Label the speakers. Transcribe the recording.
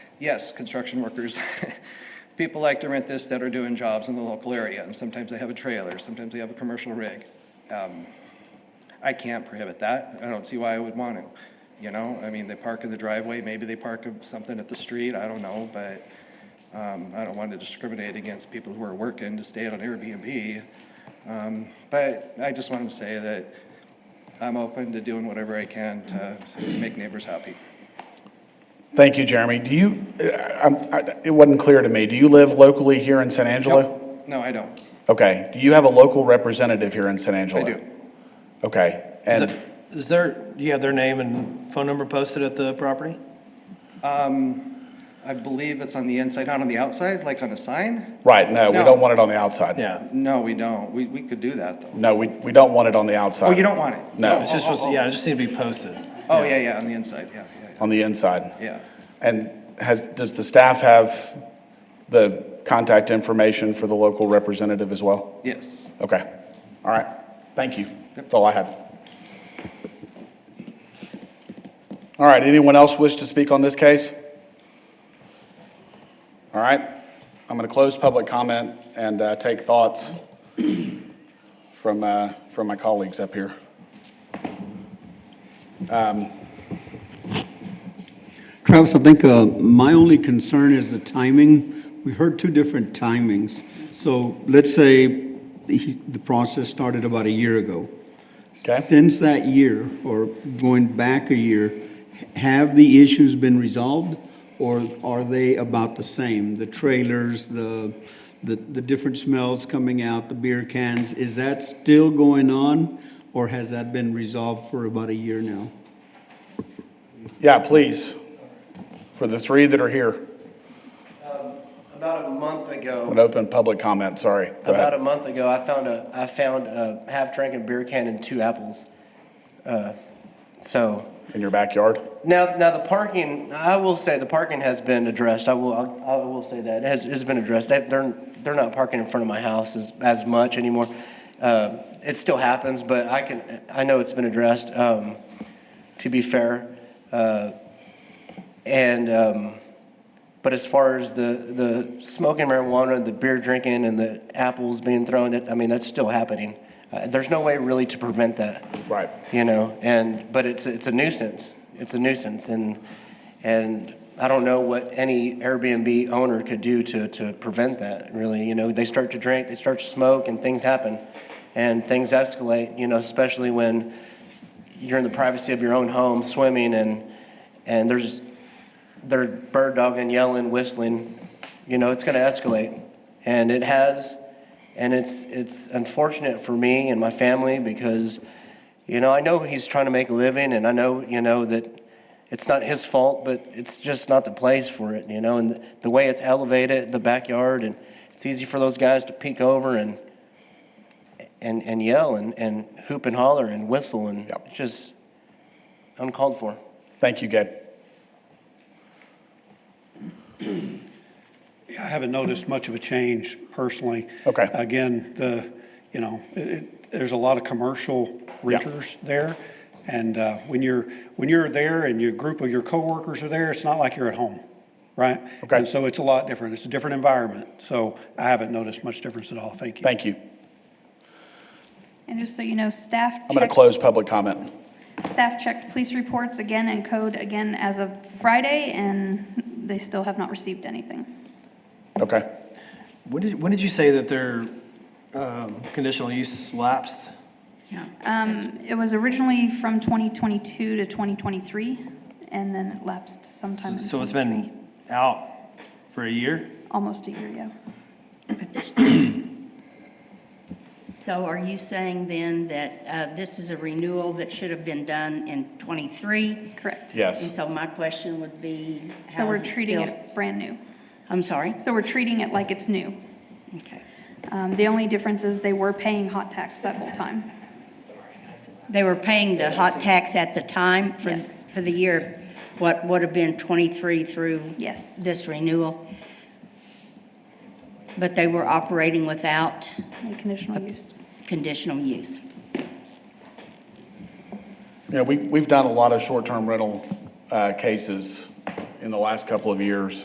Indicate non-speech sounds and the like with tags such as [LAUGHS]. Speaker 1: yes, construction workers, [LAUGHS] people like to rent this that are doing jobs in the local area, and sometimes they have a trailer, sometimes they have a commercial rig. Um, I can't prohibit that. I don't see why I would want to. You know, I mean, they park in the driveway, maybe they park something at the street, I don't know, but um, I don't want to discriminate against people who are working to stay on Airbnb. Um, But I just wanted to say that I'm open to doing whatever I can to make neighbors happy.
Speaker 2: Thank you, Jeremy. Do you, I- I'm- I- it wasn't clear to me, do you live locally here in San Angelo?
Speaker 1: Nope. No, I don't.
Speaker 2: Okay, do you have a local representative here in San Angelo?
Speaker 1: I do.
Speaker 2: Okay,
Speaker 3: Is
Speaker 2: and,
Speaker 3: it- Is there, do you have their name and phone number posted at the property?
Speaker 1: I believe it's on the inside, not on the outside, like on a sign?
Speaker 2: right, no, we
Speaker 1: No.
Speaker 2: don't want it on the outside.
Speaker 3: Yeah.
Speaker 1: No, we don't. We, we could do that, though.
Speaker 2: No, we, we don't want it on the outside.
Speaker 1: Oh, you don't want it?
Speaker 2: No,
Speaker 3: It's just, supposed to- yeah, it just needs to be posted.
Speaker 1: Oh, yeah, yeah, on the inside, yeah, yeah,
Speaker 2: on the inside.
Speaker 1: yeah. Yeah.
Speaker 2: And has, does the staff have the contact information for the local representative as well?
Speaker 1: Yes.
Speaker 2: Okay, all right, thank you. That's all I had. All right, anyone else wish to speak on this case? All right, I'm going to close public comment and uh, take thoughts [CLEARS THROAT] from, uh, from my colleagues up here.
Speaker 4: Travis, I think uh, my only concern is the timing. We heard two different timings. So let's say he- the process started about a year ago.
Speaker 2: Okay.
Speaker 4: Since that year, or going back a year, h- have the issues been resolved? Or are they about the same? The trailers, the, the the different smells coming out, the beer cans, is that still going on? Or has that been resolved for about a year now?
Speaker 2: Yeah, please, for the three that are here,
Speaker 5: About a month ago,
Speaker 2: an open public comment, sorry. Go ahead.
Speaker 5: about a month ago, I found a, I found a half drinking beer can and two apples. Uh, So,
Speaker 2: In your backyard?
Speaker 5: now, now the parking, I will say the parking has been addressed. I will, I will say that, It has, has been addressed. They've, they're, they're not parking in front of my house as, as much anymore. Uh, It still happens, but I can, I know it's been addressed, um, to be fair. Uh, And, um, but as far as the, the smoking marijuana, the beer drinking and the apples being thrown, that, I mean, that's still happening. Uh, There's no way really to prevent that
Speaker 2: Right.
Speaker 5: you know and but it's it's a nuisance it's a nuisance and and i don't know what any airbnb owner could do to to prevent that really you know they start to drink they start to smoke and things happen and things escalate you know especially when you're in the privacy of your own home swimming and and there's they're bird dogging yelling whistling you know it's going to escalate and it has and it's it's unfortunate for me and my family because you know i know he's trying to make a living and i know you know that it's not his fault but it's just not the place for it you know and the, the way it's elevated the backyard and it's easy for those guys to peek over and and and yell and and hoop and holler and whistle and
Speaker 2: Yep.
Speaker 5: it's just uncalled for
Speaker 2: Thank you, Gabe.
Speaker 6: I haven't noticed much of a change personally.
Speaker 2: Okay.
Speaker 6: Again, the, you know, it, it, there's a lot of commercial renters there. And, uh, when you're, when you're there and your group of your coworkers are there, it's not like you're at home, right?
Speaker 2: Okay.
Speaker 6: And so it's a lot different. It's a different environment. So I haven't noticed much difference at all. Thank you.
Speaker 2: Thank you.
Speaker 7: And just so you know, staff.
Speaker 2: I'm going to
Speaker 7: checked-
Speaker 2: close public comment.
Speaker 7: Staff checked police reports again and code again as of Friday, and they still have not received anything.
Speaker 2: Okay.
Speaker 3: When did, when did you say that their um, conditional use lapsed?
Speaker 7: Um, It was originally from 2022 to 2023, and then it lapsed sometime. in
Speaker 3: So it's been out for a year?
Speaker 7: Almost a year, yeah.
Speaker 8: So are you saying then that uh, this is a renewal that should have been done in '23?
Speaker 7: Correct.
Speaker 8: And
Speaker 2: Yes.
Speaker 8: so my question would be,
Speaker 7: So
Speaker 8: how
Speaker 7: we're
Speaker 8: is it
Speaker 7: treating
Speaker 8: still?
Speaker 7: it brand new.
Speaker 8: I'm sorry?
Speaker 7: So we're treating it like it's new.
Speaker 8: Okay.
Speaker 7: Um, The only difference is they were paying hot tax that whole time.
Speaker 8: They were paying the hot tax at the time for,
Speaker 7: Yes.
Speaker 8: for the year, what would have been '23 through?
Speaker 7: Yes.
Speaker 8: This renewal? But they were operating without
Speaker 7: The conditional use.
Speaker 8: conditional use?
Speaker 2: You know, we, we've done a lot of short-term rental uh, cases in the last couple of years.